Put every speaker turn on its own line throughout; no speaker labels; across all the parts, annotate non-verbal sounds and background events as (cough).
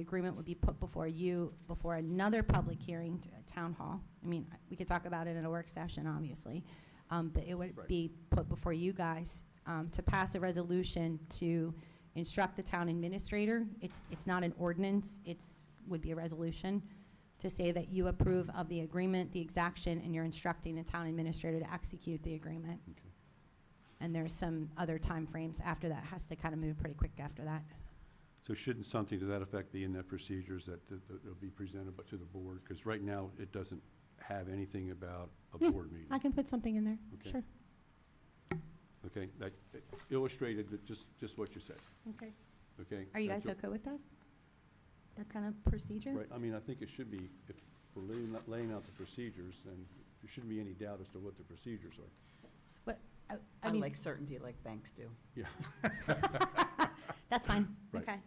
agreement would be put before you, before another public hearing, t- town hall. I mean, I- we could talk about it in a work session, obviously, um, but it would
Right.
be put before you guys um, to pass a resolution to instruct the town administrator. It's, it's not an ordinance, it's, would be a resolution to say that you approve of the agreement, the exaction, and you're instructing the town administrator to execute the agreement.
Okay.
And there's some other timeframes after that, has to kind of move pretty quick after that.
So shouldn't something to that effect be in that procedures that that- that will be presented but to the board? Because right now, it doesn't have anything about a
Yeah,
board meeting.
I can put something in there,
Okay.
sure.
Okay, that that illustrated that just, just what you said,
Okay.
okay?
Are you
That's
guys
your-
okay with that? That kind of procedure?
Right, I mean, I think it should be, if we're laying out- laying out the procedures, then there shouldn't be any doubt as to what the procedures are.
I- I
I
mean,
like certainty like banks do.
(laughs) that's fine.
Right.
Okay.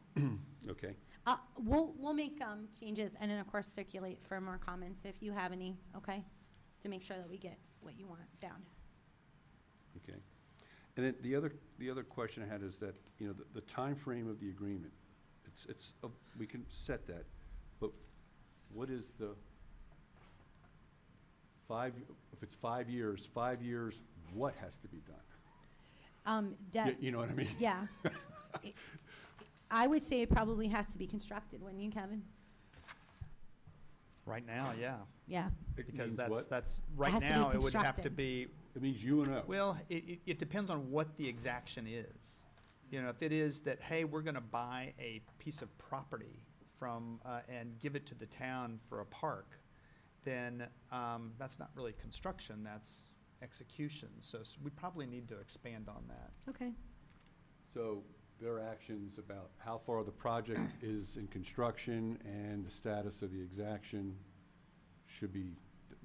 Okay,
Uh, We'll, we'll make um, changes and then, of course, circulate for more comments if you have any, okay? To make sure that we get what you want down.
okay. And then the other, the other question I had is that, you know, the- the time frame of the agreement, it's, it's, uh, we can set that, but what is the five, if it's five years, five years, what has to be done?
Um,
You-
That,
You know what I mean?
yeah. (laughs) It- I would say it probably has to be constructed, wouldn't you, Kevin?
Right now, yeah,
Yeah.
It
because
means
that's,
what?
that's, right
has to be
now, it would have to
constructed.
be,
It means you and O.
well, it, it- it depends on what the exaction is. You know, if it is that, hey, we're gonna buy a piece of property from, uh, and give it to the town for a park, then, um, that's not really construction, that's execution, so s- we probably need to expand on that.
Okay.
So their actions about how far the
(coughs)
project is in construction and the status of the exaction should be,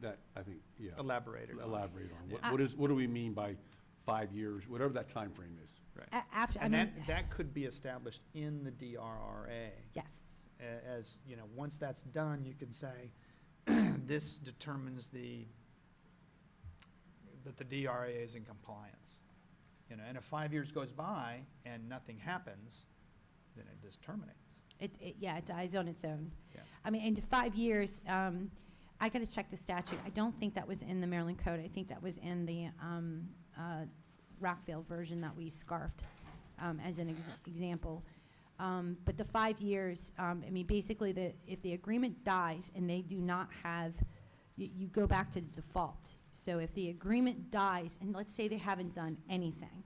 that, I think, yeah.
Elaborate it on.
Elaborate on. What
Yeah.
what is, what do we mean by five years, whatever that time frame is?
Right.
A- After, I
And
mean,
that, that could be established in the DRRA.
yes.
a- as, you know, once that's done, you can say, (clears throat) this determines the, that the DRA is in compliance. You know, and if five years goes by and nothing happens, then it just terminates.
It, it, yeah, it dies on its own.
Yeah.
I mean, into five years, um, I gotta check the statute. I don't think that was in the Maryland code. I think that was in the, um, uh, Rockville version that we scarfed, um, as an ex- example. Um, but the five years, um, I mean, basically the, if the agreement dies and they do not have, you, you go back to default. So if the agreement dies, and let's say they haven't done anything,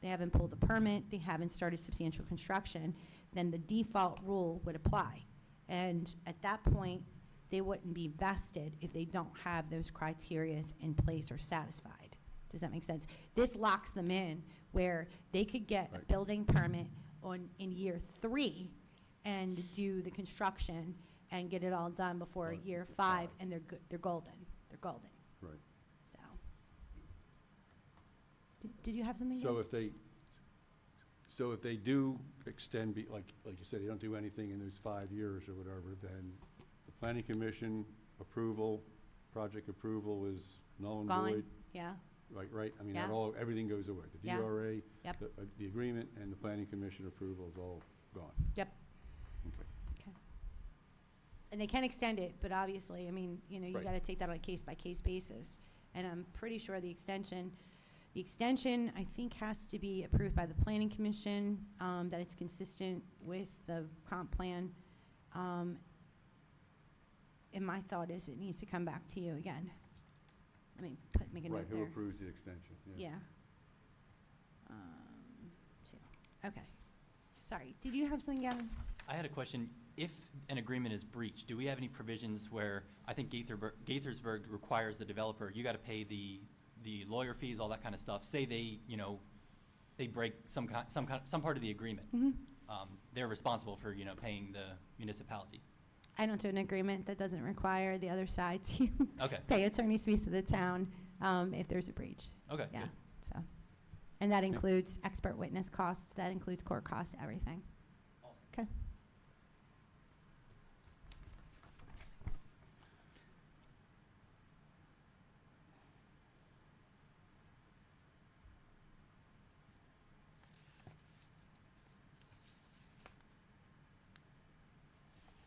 they haven't pulled a permit, they haven't started substantial construction, then the default rule would apply. And at that point, they wouldn't be vested if they don't have those criterias in place or satisfied. Does that make sense? This locks them in where they could get a
Right.
building permit on, in year three and do the construction and get it all done before
Right,
year
before
five,
five.
and they're good, they're golden, they're golden,
Right.
so. Did- Did you have something?
So
Dan?
if they, so if they do extend, be- like, like you said, they don't do anything in those five years or whatever, then the planning commission approval, project approval is null and
Gone.
void.
Yeah,
Right, right, I mean,
Yeah.
that all, everything goes away. The
Yeah.
DRA,
Yep.
the, uh, the agreement and the planning commission approval is all gone.
Yep.
Okay.
and they can extend it, but obviously, I mean, you know, you
Right.
gotta take that on a case-by-case basis. And I'm pretty sure the extension, the extension, I think, has to be approved by the planning commission, um, that it's consistent with the comp plan. Um, and my thought is it needs to come back to you again. Let me put, make a
Right,
note
who
there.
approves the extension?
Yeah. Um, so, Okay. Sorry, did you have something, Gavin?
I had a question. If an agreement is breached, do we have any provisions where, I think Gaithersburg, Gaithersburg requires the developer, you gotta pay the, the lawyer fees, all that kind of stuff. Say they, you know, they break some kind, some kind, some part of the agreement.
Mm-hmm.
Um, they're responsible for, you know, paying the municipality.
I don't do an agreement that doesn't require the other side to
(laughs) Okay,
pay attorney's fees to the town um, if there's a breach.
okay,
Yeah,
good.
so. And that
Yeah.
includes expert witness costs, that includes court costs, everything.